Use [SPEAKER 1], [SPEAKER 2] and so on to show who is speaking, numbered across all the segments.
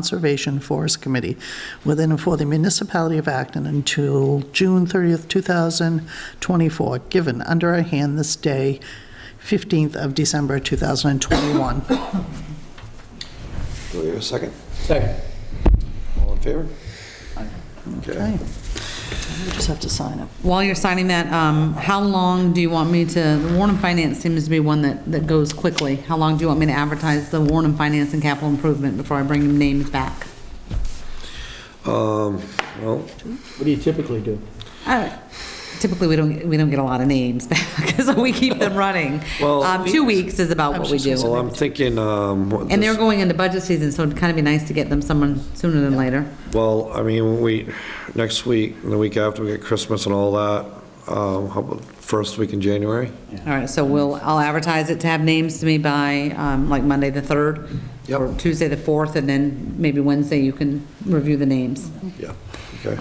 [SPEAKER 1] Conservation Forest Committee within and for the municipality of Acton until June 30th, 2024, given under our hand this day, 15th of December, 2021.
[SPEAKER 2] Do we have a second?
[SPEAKER 3] Second.
[SPEAKER 2] All in favor?
[SPEAKER 1] Okay. We just have to sign it.
[SPEAKER 4] While you're signing that, um, how long do you want me to, the Warren and Finance seems to be one that, that goes quickly. How long do you want me to advertise the Warren and Finance and capital improvement before I bring names back?
[SPEAKER 2] Um, well,
[SPEAKER 3] What do you typically do?
[SPEAKER 4] Uh, Typically, we don't, we don't get a lot of names back, so we keep them running.
[SPEAKER 2] Well-
[SPEAKER 4] Um, Two weeks is about what we
[SPEAKER 2] well,
[SPEAKER 4] do.
[SPEAKER 2] I'm thinking, um, what
[SPEAKER 4] And they're
[SPEAKER 2] this,
[SPEAKER 4] going into budget season, so it'd kind of be nice to get them someone sooner than later.
[SPEAKER 2] well, I mean, we, next week, and the week after, we get Christmas and all that, um, how about first week in January?
[SPEAKER 4] All right, so we'll, I'll advertise it to have names to me by, um, like, Monday the 3rd,
[SPEAKER 2] Yep.
[SPEAKER 4] or Tuesday the 4th, and then maybe Wednesday you can review the names.
[SPEAKER 2] Yeah, okay.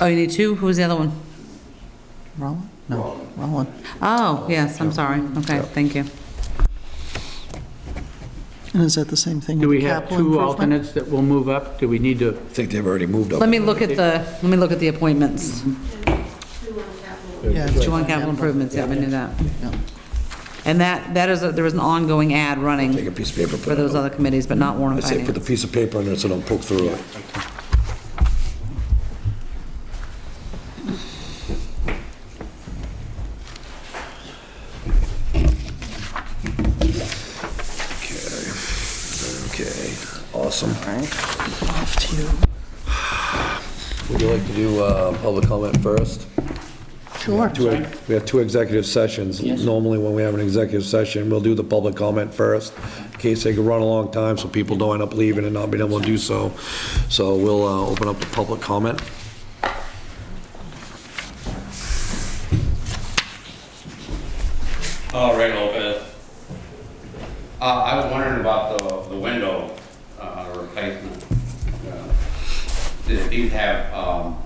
[SPEAKER 4] Oh, you need two? Who was the other one?
[SPEAKER 1] Roland? No, Roland.
[SPEAKER 4] Oh, yes, I'm sorry. Okay, thank you.
[SPEAKER 1] And is that the same thing?
[SPEAKER 3] Do
[SPEAKER 1] with
[SPEAKER 3] we have
[SPEAKER 1] capital
[SPEAKER 3] two
[SPEAKER 1] improvement?
[SPEAKER 3] alternates that will move up? Do we need to,
[SPEAKER 2] I think they've already moved up.
[SPEAKER 4] Let me look at the, let me look at the appointments.
[SPEAKER 2] Mm-hmm.
[SPEAKER 1] Yeah,
[SPEAKER 4] Two on capital improvements, yeah, I knew that. And that, that is, a- there was an ongoing ad
[SPEAKER 2] Take a
[SPEAKER 4] running
[SPEAKER 2] piece of paper, put
[SPEAKER 4] for
[SPEAKER 2] it
[SPEAKER 4] those
[SPEAKER 2] on.
[SPEAKER 4] other committees, but not Warren
[SPEAKER 2] I
[SPEAKER 4] and
[SPEAKER 2] say put the
[SPEAKER 4] Finance.
[SPEAKER 2] piece of paper under it so don't poke through it. Okay, okay, awesome.
[SPEAKER 1] Off to you.
[SPEAKER 2] Would you like to do uh, public comment first?
[SPEAKER 1] Sure.
[SPEAKER 2] Two- We have two executive sessions. Normally, when we have an executive session, we'll do the public comment first, in case they could run a long time, so people don't end up leaving and not being able to do so. So we'll uh, open up the public comment.
[SPEAKER 5] Oh, right, Lopez. Uh, I was wondering about the, the window, uh, replacement. Uh, Did these have, um,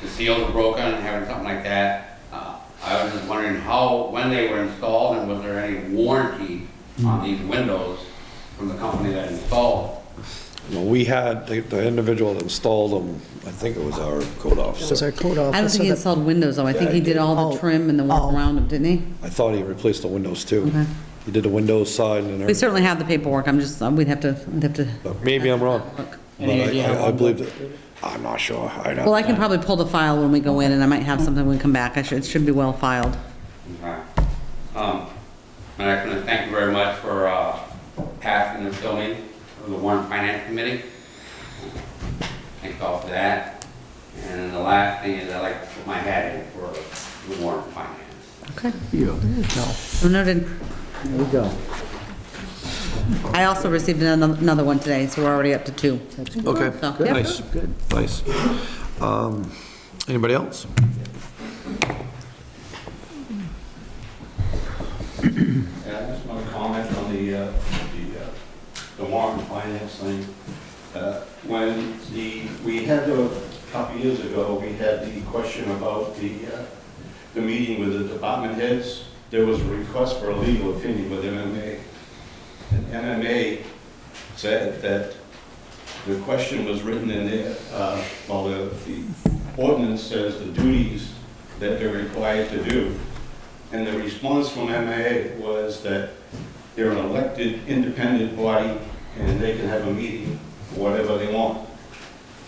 [SPEAKER 5] the seals were broken, having something like that? Uh, I was just wondering how, when they were installed and was there any warranty on these windows from the company that installed?
[SPEAKER 2] Well, We had, the- the individual that installed them, I think it was our code
[SPEAKER 1] Was our
[SPEAKER 2] officer.
[SPEAKER 1] code
[SPEAKER 4] I don't
[SPEAKER 1] officer
[SPEAKER 4] think he
[SPEAKER 1] that-
[SPEAKER 4] installed windows, though. I think
[SPEAKER 2] Yeah,
[SPEAKER 4] he
[SPEAKER 2] he
[SPEAKER 4] did all
[SPEAKER 1] Oh,
[SPEAKER 4] the trim and the walk
[SPEAKER 1] oh.
[SPEAKER 4] around them, didn't he?
[SPEAKER 2] I thought he replaced the windows too.
[SPEAKER 4] Okay.
[SPEAKER 2] He did the windows side and
[SPEAKER 4] We
[SPEAKER 2] everything.
[SPEAKER 4] certainly have the paperwork. I'm just, we'd have to, we'd have to.
[SPEAKER 2] But Maybe I'm wrong.
[SPEAKER 4] Look.
[SPEAKER 2] But
[SPEAKER 3] Any
[SPEAKER 2] I-
[SPEAKER 3] idea how
[SPEAKER 2] I I
[SPEAKER 3] long
[SPEAKER 2] believe that, I'm not sure. I don't-
[SPEAKER 4] Well, I can probably pull the file when we go in, and I might have something when we come back. I should, it should be well filed.
[SPEAKER 5] Okay. Um, And I want to thank you very much for uh, passing this to me, for the Warren Finance Committee. Thank you all for that. And the last thing is I'd like to put my hat in for the Warren Finance.
[SPEAKER 4] Okay.
[SPEAKER 3] you?
[SPEAKER 4] So Oh, noted.
[SPEAKER 3] There we go.
[SPEAKER 4] I also received another another one today, so we're already up to two.
[SPEAKER 2] Okay,
[SPEAKER 4] So, yeah.
[SPEAKER 2] nice, nice. Um, Anybody else?
[SPEAKER 6] Yeah, I just want to comment on the, uh, the, uh, the warrant finance thing. Uh, When the, we had, a couple years ago, we had the question about the, uh, the meeting with the department heads. There was a request for a legal opinion with MMA. And MMA said that the question was written in there, uh, well, the the ordinance says the duties that they're required to do. And the response from MAA was that they're an elected, independent body, and they can have a meeting, whatever they want.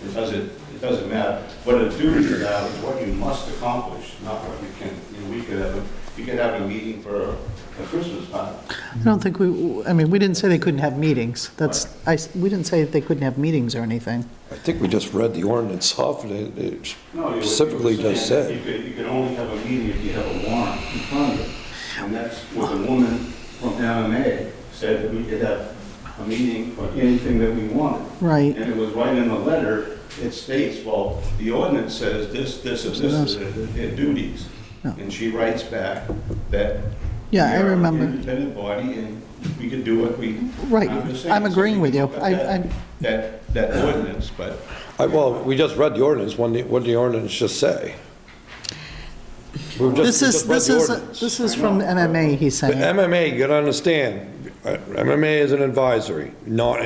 [SPEAKER 6] It doesn't, it doesn't matter. What a duty is about is what you must accomplish, not what you can, you know, we could have, a you could have a meeting for a Christmas party.
[SPEAKER 1] I don't think we, I mean, we didn't say they couldn't have meetings. That's, I, we didn't say they couldn't have meetings or anything.
[SPEAKER 2] I think we just read the ordinance off, and it- it
[SPEAKER 6] No, you- you were
[SPEAKER 2] specifically does
[SPEAKER 6] saying
[SPEAKER 2] say.
[SPEAKER 6] You could, you could only have a meeting if you have a warrant in front of you. And that's what the woman from MMA said, that we could have a meeting for anything that we wanted.
[SPEAKER 1] Right.
[SPEAKER 6] And it was right in the letter, it states, well, the ordinance says this, this, and this is their- their duties.
[SPEAKER 1] Yeah.
[SPEAKER 6] And she writes back that.
[SPEAKER 1] Oh. Yeah, I
[SPEAKER 6] we are an
[SPEAKER 1] remember.
[SPEAKER 6] Independent body and we could do what we.
[SPEAKER 1] Right.
[SPEAKER 6] just saying,
[SPEAKER 1] I'm
[SPEAKER 6] so
[SPEAKER 1] agreeing with you.
[SPEAKER 6] got
[SPEAKER 1] I-
[SPEAKER 6] that-
[SPEAKER 1] I'm-
[SPEAKER 6] That, that ordinance, but.
[SPEAKER 2] I, well, we just read the ordinance, what did, what did the ordinance just say? We were just-
[SPEAKER 1] This
[SPEAKER 2] we
[SPEAKER 1] is,
[SPEAKER 2] just read
[SPEAKER 1] this
[SPEAKER 2] the
[SPEAKER 1] is,
[SPEAKER 2] ordinance.
[SPEAKER 1] this is from MMA, he's
[SPEAKER 2] The
[SPEAKER 1] saying.
[SPEAKER 2] MMA, you gotta understand, MMA is an advisory, not